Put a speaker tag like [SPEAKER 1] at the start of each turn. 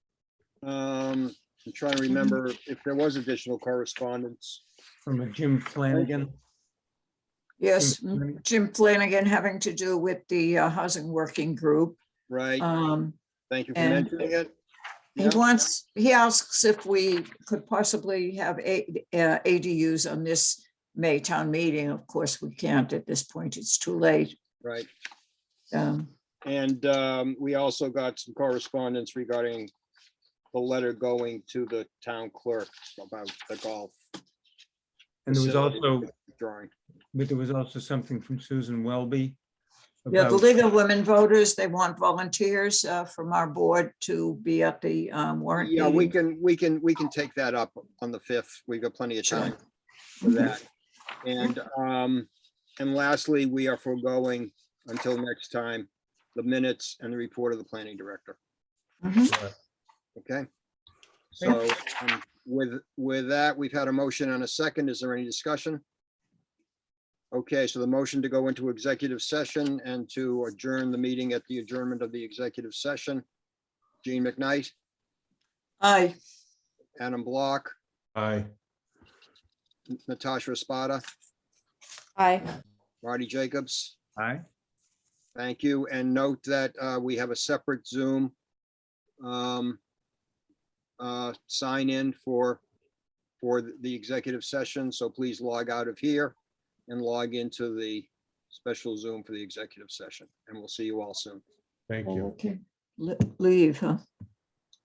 [SPEAKER 1] Um, I'm trying to remember if there was additional correspondence.
[SPEAKER 2] from Jim Flanagan.
[SPEAKER 3] Yes, mm-hmm. Jim Flanagan having to do with the uh, Housing Working Group.
[SPEAKER 1] Right,
[SPEAKER 3] Um,
[SPEAKER 1] thank you for
[SPEAKER 3] and-
[SPEAKER 1] mentioning it.
[SPEAKER 3] He
[SPEAKER 1] Yeah.
[SPEAKER 3] wants, he asks if we could possibly have A- uh, ADUs on this May town meeting. Of course, we can't at this point. It's too late.
[SPEAKER 1] Right,
[SPEAKER 3] Um,
[SPEAKER 1] and um, we also got some correspondence regarding the letter going to the town clerk about the golf.
[SPEAKER 2] And there was
[SPEAKER 1] facility
[SPEAKER 2] also,
[SPEAKER 1] Drawing,
[SPEAKER 2] but there was also something from Susan Welby.
[SPEAKER 3] Yeah, the
[SPEAKER 2] about-
[SPEAKER 3] League of Women Voters, they want volunteers uh, from our board to be at the um, warrant
[SPEAKER 1] yeah, we
[SPEAKER 3] meeting.
[SPEAKER 1] can, we can, we can take that up on the fifth, we got plenty of
[SPEAKER 3] Sure.
[SPEAKER 1] time for that. And um, and lastly, we are foregoing until next time, the minutes and the report of the planning director.
[SPEAKER 3] Mhm.
[SPEAKER 2] uh,
[SPEAKER 1] Okay. So um, with, with that, we've had a motion and a second. Is there any discussion? Okay, so the motion to go into executive session and to adjourn the meeting at the adjournment of the executive session. Gene McKnight,
[SPEAKER 3] Aye,
[SPEAKER 1] Adam Block,
[SPEAKER 4] Aye.
[SPEAKER 1] Natasha Espada,
[SPEAKER 5] Aye.
[SPEAKER 1] Marty Jacobs.
[SPEAKER 2] Aye.
[SPEAKER 1] Thank you. And note that uh, we have a separate Zoom um, uh, sign in for, for the executive session. So please log out of here and log into the special Zoom for the executive session. And we'll see you all soon.
[SPEAKER 4] Thank you.
[SPEAKER 3] okay, Le- leave, huh?